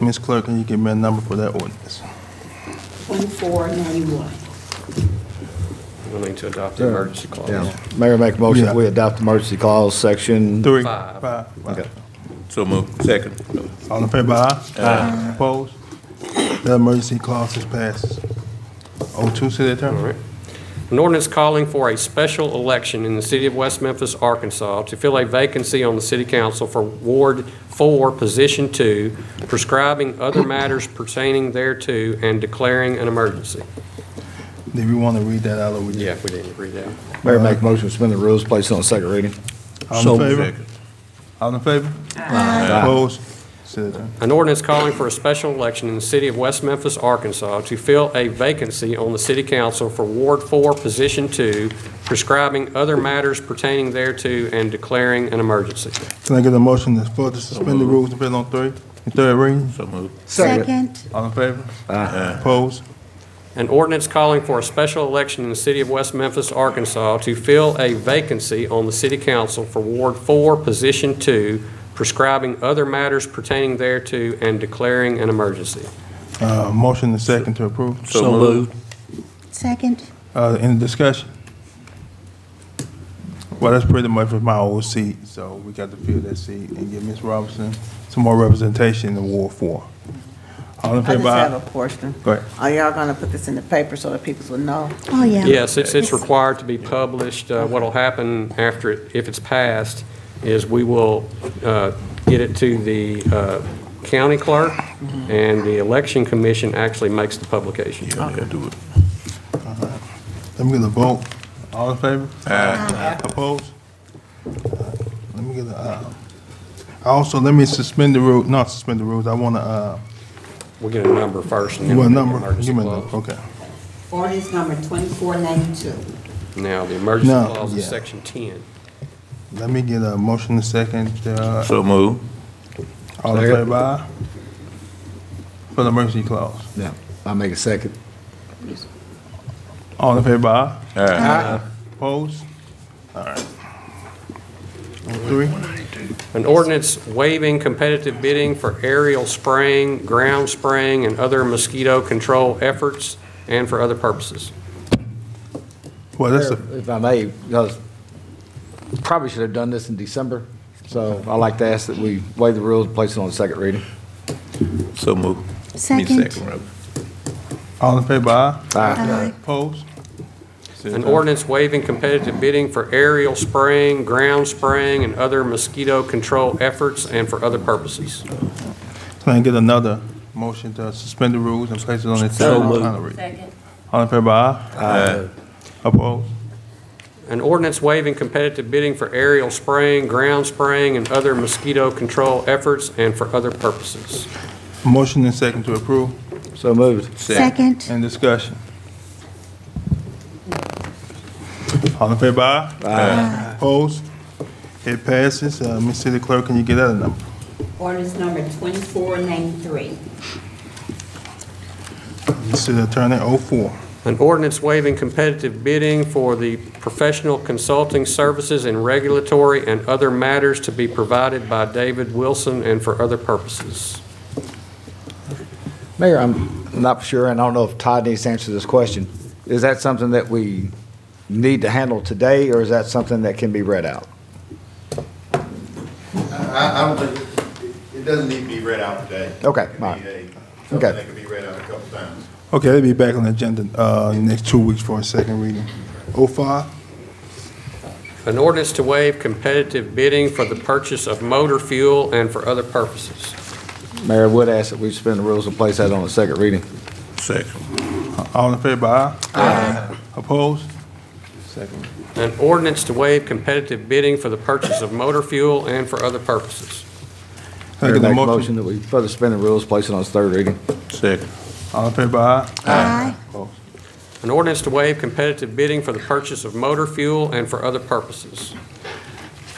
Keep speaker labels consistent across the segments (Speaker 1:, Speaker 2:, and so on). Speaker 1: Ms. Clerk, can you give me a number for that ordinance?
Speaker 2: 1491.
Speaker 3: We'll need to adopt the emergency clause.
Speaker 4: Yeah. Mayor, make a motion
Speaker 1: Yeah.
Speaker 4: that we adopt emergency clause section.
Speaker 1: Three.
Speaker 3: Five.
Speaker 1: Five. five.
Speaker 4: Okay.
Speaker 5: So move. Second.
Speaker 1: All in favor, aye? Aye. Opposed? The emergency clause is passed. O two, City
Speaker 3: All
Speaker 1: Attorney.
Speaker 3: right. An ordinance calling for a special election in the city of West Memphis, Arkansas, to fill a vacancy on the city council for Ward 4, Position 2, prescribing other matters pertaining thereto and declaring an emergency.
Speaker 1: Do we want to read that out or we?
Speaker 3: Yeah, we didn't read that.
Speaker 4: Mayor, make a motion to suspend the rules, place it on second reading.
Speaker 1: All in favor? All in favor? Aye. Opposed? City Attorney.
Speaker 3: An ordinance calling for a special election in the city of West Memphis, Arkansas, to fill a vacancy on the city council for Ward 4, Position 2, prescribing other matters pertaining thereto and declaring an emergency.
Speaker 1: Can I get a motion to for to suspend the rules and put it on three, the third reading?
Speaker 5: So move.
Speaker 6: Second.
Speaker 1: All in favor? Aye. Opposed?
Speaker 3: An ordinance calling for a special election in the city of West Memphis, Arkansas, to fill a vacancy on the city council for Ward 4, Position 2, prescribing other matters pertaining thereto and declaring an emergency.
Speaker 1: Uh, motion and second to approve.
Speaker 5: So move.
Speaker 6: Second.
Speaker 1: Uh, any discussion? Well, that's pretty much with my old seat, so we got to fill that seat and give Ms. Robinson some more representation in Ward Four. All in
Speaker 7: I just
Speaker 1: favor?
Speaker 7: have a
Speaker 1: aye?
Speaker 7: question.
Speaker 1: Go ahead.
Speaker 7: Are y'all gonna put this in the paper so that people will know?
Speaker 6: Oh, yeah.
Speaker 3: Yes, it's, it's required to be published. Uh, What'll happen after, it if it's passed, is we will uh, get it to the uh, county clerk, and the election commission actually makes the publication.
Speaker 5: Yeah, yeah, do it.
Speaker 1: Let me get a vote. All in favor? Aye. Opposed? Uh, Let me get a, uh, also, let me suspend the rule, not suspend the rules, I wanna, uh,
Speaker 3: We'll get a number first, and then
Speaker 1: what
Speaker 3: we'll get
Speaker 1: number?
Speaker 3: the emergency
Speaker 1: Give me a number,
Speaker 3: clause.
Speaker 1: okay.
Speaker 2: Ordinance number 2492.
Speaker 3: Now, the emergency
Speaker 1: No,
Speaker 3: clause is
Speaker 1: yeah.
Speaker 3: section 10.
Speaker 1: Let me get a motion to second, uh,
Speaker 5: So move.
Speaker 1: all in favor, aye? For the emergency clause.
Speaker 4: Yeah, I make a second.
Speaker 1: All in favor, aye?
Speaker 5: Aye.
Speaker 1: Opposed? All right. Three,
Speaker 3: An ordinance waiving competitive bidding for aerial spraying, ground spraying, and other mosquito control efforts, and for other purposes.
Speaker 1: well, Oh, that's a,
Speaker 4: If I may, because probably should have done this in December, so I'd like to ask that we waive the rules, place it on second reading.
Speaker 5: So move. Me
Speaker 6: Second.
Speaker 5: Second, Robert.
Speaker 1: all in favor, aye?
Speaker 6: Aye.
Speaker 1: Opposed?
Speaker 3: An ordinance waiving competitive bidding for aerial spraying, ground spraying, and other mosquito control efforts, and for other purposes.
Speaker 1: Can I get another motion to suspend the rules and place it on its third and final reading?
Speaker 2: Second.
Speaker 1: All in favor, aye?
Speaker 5: Aye.
Speaker 1: Opposed?
Speaker 3: An ordinance waiving competitive bidding for aerial spraying, ground spraying, and other mosquito control efforts, and for other purposes.
Speaker 1: Motion and second to approve,
Speaker 4: So moved.
Speaker 6: Second.
Speaker 1: and discussion. All in favor, aye? Aye. Opposed? It passes, uh, Ms. City Clerk, can you get that number?
Speaker 2: Ordinance number 2493.
Speaker 1: Ms. City Attorney, oh four.
Speaker 3: An ordinance waiving competitive bidding for the professional consulting services and regulatory and other matters to be provided by David Wilson and for other purposes.
Speaker 4: Mayor, I'm not sure, and I don't know if Todd needs to answer this question. Is that something that we need to handle today, or is that something that can be read out?
Speaker 8: I, I don't think, it doesn't need to be read out today.
Speaker 4: Okay,
Speaker 8: It can be
Speaker 4: all right.
Speaker 8: a-
Speaker 4: Okay.
Speaker 8: Something that can be read out a couple times.
Speaker 1: Okay, they'll be back on the agenda, uh, in the next two weeks for a second reading. Oh five?
Speaker 3: An ordinance to waive competitive bidding for the purchase of motor fuel and for other purposes.
Speaker 4: Mayor, I would ask that we suspend the rules and place that on the second reading.
Speaker 5: Second.
Speaker 1: All in favor, aye? Aye. Opposed? Second.
Speaker 3: An ordinance to waive competitive bidding for the purchase of motor fuel and for other purposes.
Speaker 1: Can I
Speaker 4: Mayor,
Speaker 1: get a
Speaker 4: make a
Speaker 1: motion?
Speaker 4: that we further suspend the rules, place it on its third reading.
Speaker 5: Second.
Speaker 1: All in favor, aye?
Speaker 6: Aye.
Speaker 1: Opposed?
Speaker 3: An ordinance to waive competitive bidding for the purchase of motor fuel and for other purposes.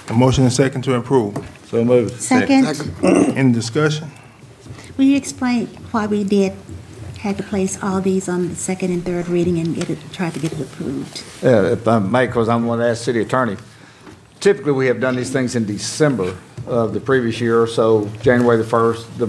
Speaker 1: A motion and second to approve.
Speaker 4: So moved.
Speaker 6: Second.
Speaker 1: Any discussion?
Speaker 6: Will you explain why we did, had to place all these on the second and third reading and get it, try to get it approved?
Speaker 4: Yeah, if I may, because I'm going to ask city attorney. Typically, we have done these things in December of the previous year, so January the 1st, the